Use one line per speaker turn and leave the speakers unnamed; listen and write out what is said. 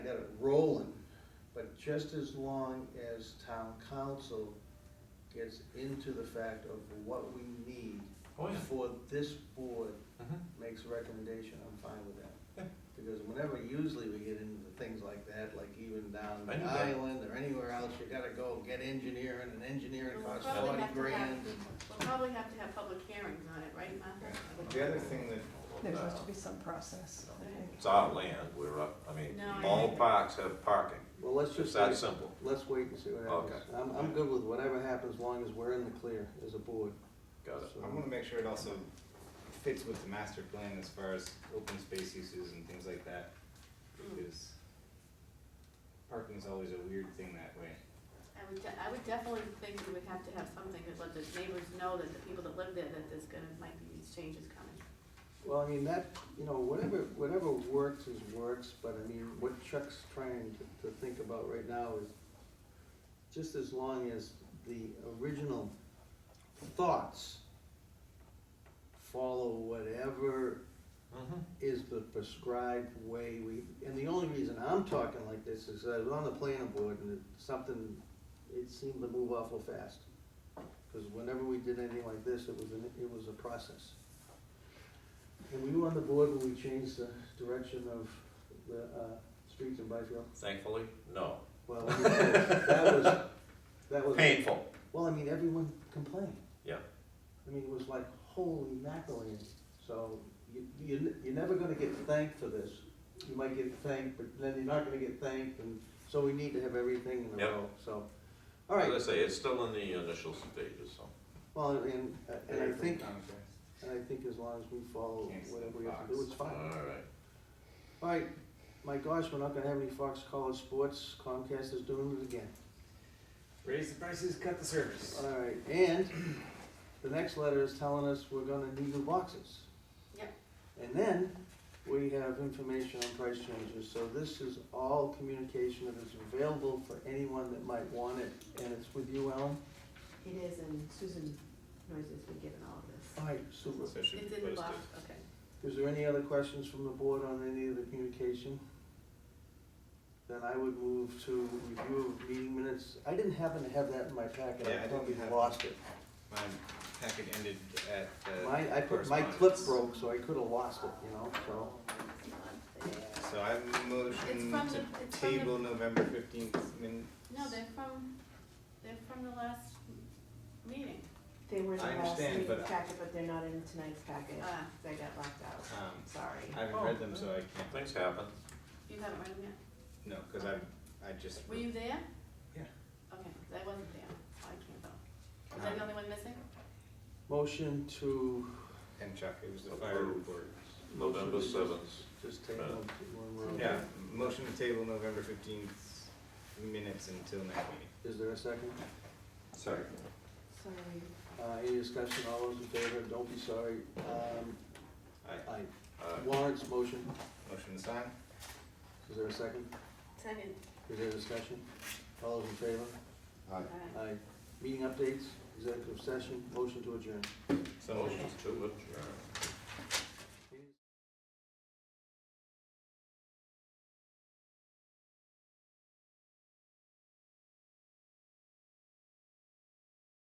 rolling, but just as long as town council gets into the fact of what we need
Oh, yeah.
for this board
Mhm.
makes a recommendation, I'm fine with
Yeah.
that. Because whenever, usually we get into things like that, like even down
I knew
the
that.
island or anywhere else, you gotta go get engineering, and engineering
We'll
costs
probably
forty
have to have,
grand.
we'll probably have to have public hearings on it, right, Martha?
The other thing that.
There
uh,
has to be some process, I think.
It's our land, we're up, I mean,
No, I
all
agree.
parks have parking,
Well, let's
it's
just,
that
wait.
simple.
let's wait and see what happens.
Okay.
I'm, I'm good with whatever happens, as long as we're in the clear as a board.
Got it.
I wanna make sure it also fits with the master plan as far as open space uses and things like that,
Mm. Hmm.
because parking is always a weird thing that way.
I would, de- I would definitely think we would have to have something that let the neighbors know that the people that live there, that there's gonna, might be these changes coming.
Well, I mean, that, you know, whatever, whatever works is works, but I mean, what Chuck's trying to, to think about right now is just as long as the original thoughts follow whatever
Mhm.
is the prescribed way we, and the only reason I'm talking like this is I was on the planning board and it, something, it seemed to move awful fast. Cause whenever we did anything like this, it was, an it was a process. And we were on the board when we changed the direction of the, uh, streets in Byfield?
Thankfully, no.
Well, that was, that was.
Painful.
Well, I mean, everyone complained.
Yeah.
I mean, it was like, holy mackerel, so you, you, you're never gonna get thanked for this. You might get thanked, but then you're not gonna get thanked, and so we need to have everything in a
Yep.
row, so. All right,
As I say, it's still in the initial stages, so.
well, and, uh, and I think,
Contrast.
and I think as long as we follow
Can't see
whatever
the
we have to do,
box.
it's
All
fine.
right.
All right, my gosh, we're not gonna have any Fox College sports, Comcast is doing it again.
Raise the prices, cut the service.
All right, and the next letter is telling us we're gonna need new boxes.
Yep.
And then we have information on price changes, so this is all communication that is available for anyone that might want it, and it's with you, Ellen?
It is, and Susan Noyes has been given all of this.
All right, super.
So it should
It's
be
in the box,
posted.
okay.
Is there any other questions from the board on any of the communication? Then I would move to review of meeting minutes. I didn't happen to have that in my packet,
Yeah, I
I
think
probably
we have-
lost it.
My packet ended at the.
My, I put, my clip
correspondence.
broke, so I could have lost it, you know, so.
It's not there.
So I
It's
motion
from
to
the- it's from the-
table November fifteenth, I mean,
No, they're from, they're from the last meeting.
They were in the
I
last
understand,
meeting's
but-
packet, but they're not in tonight's packet,
Ah.
they got locked out,
um,
sorry.
I haven't read them, so I can't,
Things happen.
You haven't read them yet?
no, cause I, I just.
Were you there?
Yeah. Uh-huh.
Okay, 'cause I wasn't there, so I can't vote. Was I the only one missing?
Motion to,
And Chuck, it
Oh,
was the fire
Approved.
report.
November seventh. Uh,
just take one, one row.
Yeah, motion to table November fifteenth minutes until next meeting.
Is there a second?
Sorry.
Sorry,
Uh, any discussion, all those in favor, don't be sorry, um,
Aye.
aye.
All right.
Warrants motion,
Motion to sign?
is there a second?
Second.
Is there discussion? All those in favor? Aye. Meeting updates, executive session, motion to adjourn.
So
Motion to adjourn.